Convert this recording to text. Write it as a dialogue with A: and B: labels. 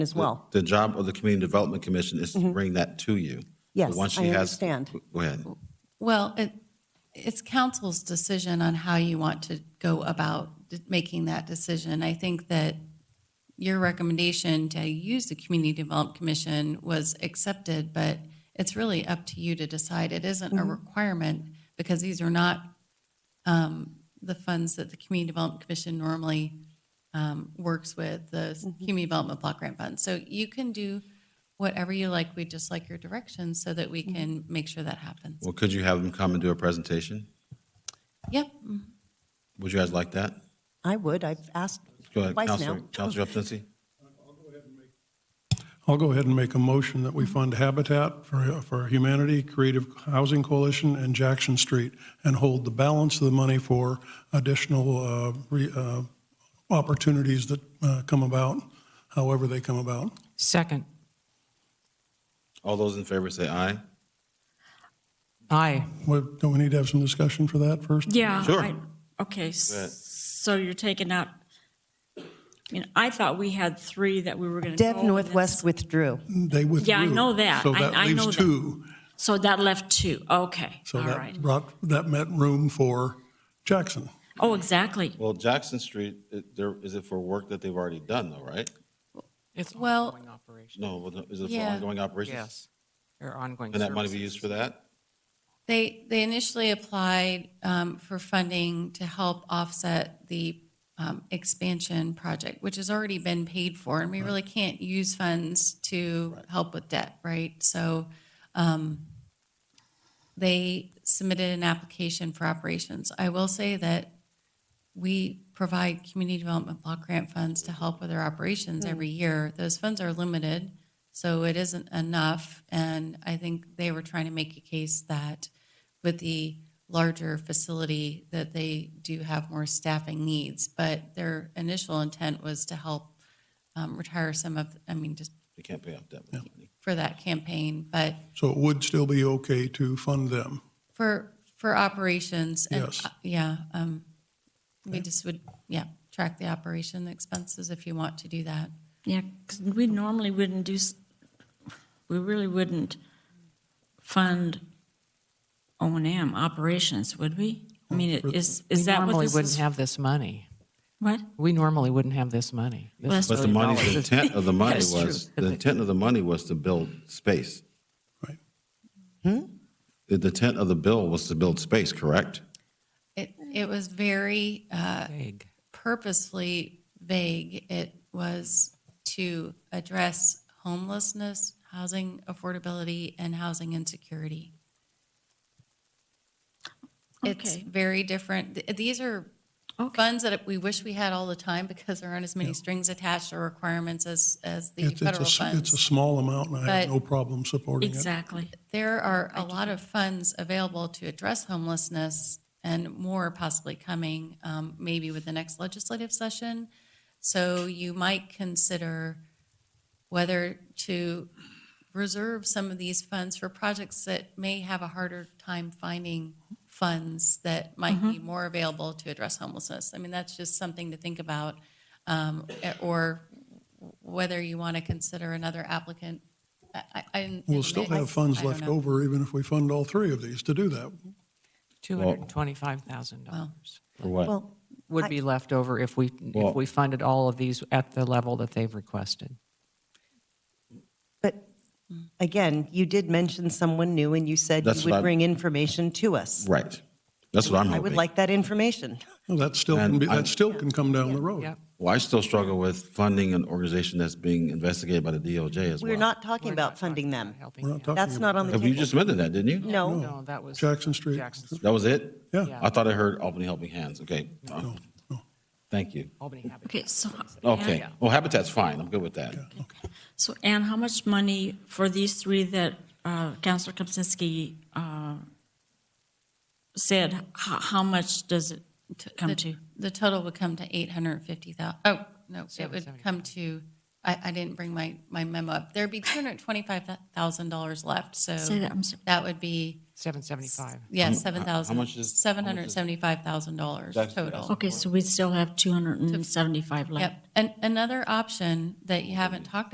A: as well. Mm-hmm.
B: The job of the Community Development Commission is to bring that to you. So
A: Yes,
B: once she
A: I
B: has-
A: understand.
B: Go ahead.
C: Well, it, it's council's decision on how you want to go about d- making that decision. I think that your recommendation to use the Community Development Commission was accepted, but it's really up to you to decide. It isn't a requirement because these are not um, the funds that the Community Development Commission normally um, works with, the s- Community Development Block Grant Fund. So you can do whatever you like. We just like your direction so that we can make sure that happens.
B: Well, could you have them come and do a presentation?
C: Yep.
B: Would you guys like that?
A: I would, I've asked
B: Go ahead,
A: twice now.
B: Counselor, Counselor Upton.
D: I'll go ahead and make a motion that we fund Habitat for for Humanity, Creative Housing Coalition, and Jackson Street, and hold the balance of the money for additional uh, re- uh, opportunities that uh, come about, however they come about.
E: Second.
B: All those in favor say aye.
E: Aye.
D: What- Don't we need to have some discussion for that first?
F: Yeah.
B: Sure.
F: I- Okay,
B: ahead.
F: s- so you're taking out, I mean, I thought we had three that we were going to go.
A: Dev
F: and
A: Northwest withdrew.
D: They withdrew.
F: Yeah, I know that.
D: So
F: I-
D: that
F: I
D: leaves
F: know that.
D: two.
F: that's- So that left two, okay,
D: So
F: all
D: that
F: right.
D: brought, that meant room for Jackson.
F: Oh, exactly.
B: Well, Jackson Street, it- there, is it for work that they've already done though, right?
E: It's
C: Well-
E: ongoing operation.
B: No, well, is it for
C: Yeah.
B: ongoing operations?
E: Yes. Or ongoing.
B: And that money be
E: services.
B: used for that?
C: They, they initially applied um, for funding to help offset the um, expansion project, which has already been paid for, and we really can't use funds to help with debt, right? So um, they submitted an application for operations. I will say that we provide community development block grant funds to help with their operations every year. Those funds are limited, so it isn't enough. And I think they were trying to make a case that with the larger facility, that they do have more staffing needs. But their initial intent was to help um, retire some of, I mean, just
B: They can't pay off debt with that money.
C: for that campaign. But
D: So it would still be okay to fund them.
C: for, for operations and,
D: Yes.
C: uh, yeah, um, we just would, yeah, track the operation expenses if you want to do that.
F: Yeah, 'cause we normally wouldn't do, s- we really wouldn't fund O and M operations, would we? I mean, it- is,
E: We
F: is that what
E: normally
F: this
E: wouldn't
F: is?
E: have this money.
F: What?
E: We normally wouldn't have this money. This
F: Well,
E: is
F: that's
B: But the
E: million
B: money, the
E: dollars.
B: intent of the money
F: That's true.
B: was, the intent of the money was to build space.
D: Right.
B: The the intent of the bill was to build space, correct?
C: It, it was very uh,
E: Vague.
C: purposefully vague. It was to address homelessness, housing affordability, and housing insecurity. It's
F: Okay.
C: very different. Th- These are
F: Okay.
C: funds that we wish we had all the time because there aren't as many strings attached or requirements as, as the
D: It's- it's a
C: federal
D: s-
C: funds.
D: It's a small amount, and I have
C: But-
D: no problem supporting it.
F: Exactly.
C: There are a lot of funds available to address homelessness and more possibly coming, um, maybe with the next legislative session. So you might consider whether to reserve some of these funds for projects that may have a harder time finding funds that might be more available to address homelessness. I mean, that's just something to think about. um, Or whether you want to consider another applicant. I- I- I-
D: We'll still have
C: I
D: funds
C: don't
D: left
C: know.
D: over, even if we fund all three of these to do that.
E: $225,000
B: Or what?
A: Well,
E: would be left over if we,
B: Well-
E: if we funded all of these at the level that they've requested.
A: but again, you did mention someone new and you said
B: That's
A: you would
B: what I-
A: bring information to us.
B: Right. That's what I'm
A: I would
B: hoping.
A: like that information.
D: Well, that still can be,
B: And I-
D: that still can come down the road.
E: Yep.
B: Well, I still struggle with funding an organization that's being investigated by the DOJ as well.
A: We're not talking
E: We're
A: about
E: not
A: funding
E: talking
A: them.
E: about helping
D: We're not
E: them.
D: talking
A: That's not
D: about
A: on the
B: Have you
A: table.
B: just amended that, didn't you?
A: No,
E: No, that was.
D: Jackson Street.
E: Jackson Street,
B: That was it?
D: Yeah.
B: I thought I heard Albany Helping Hands. Okay. Thank you.
E: Albany Habitat.
F: Okay, so.
B: Okay. Well, Habitat's fine. I'm good with that.
F: So Anne, how much money for these three that uh, Counselor Kupczynski uh, said, h- how much does it come
C: The-
F: to?
C: The total would come to 850,000, oh, no, it would
E: 775.
C: come to, I, I didn't bring my, my memo up. There'd be $225,000 left, so
F: Say that, I'm sorry.
C: that would be,
E: 775.
C: yeah, 7,000.
B: much is- how much is-
C: $775,000
B: That's-
C: total.
F: Okay, so we still have 275 left.
C: Yep. And another option that you haven't talked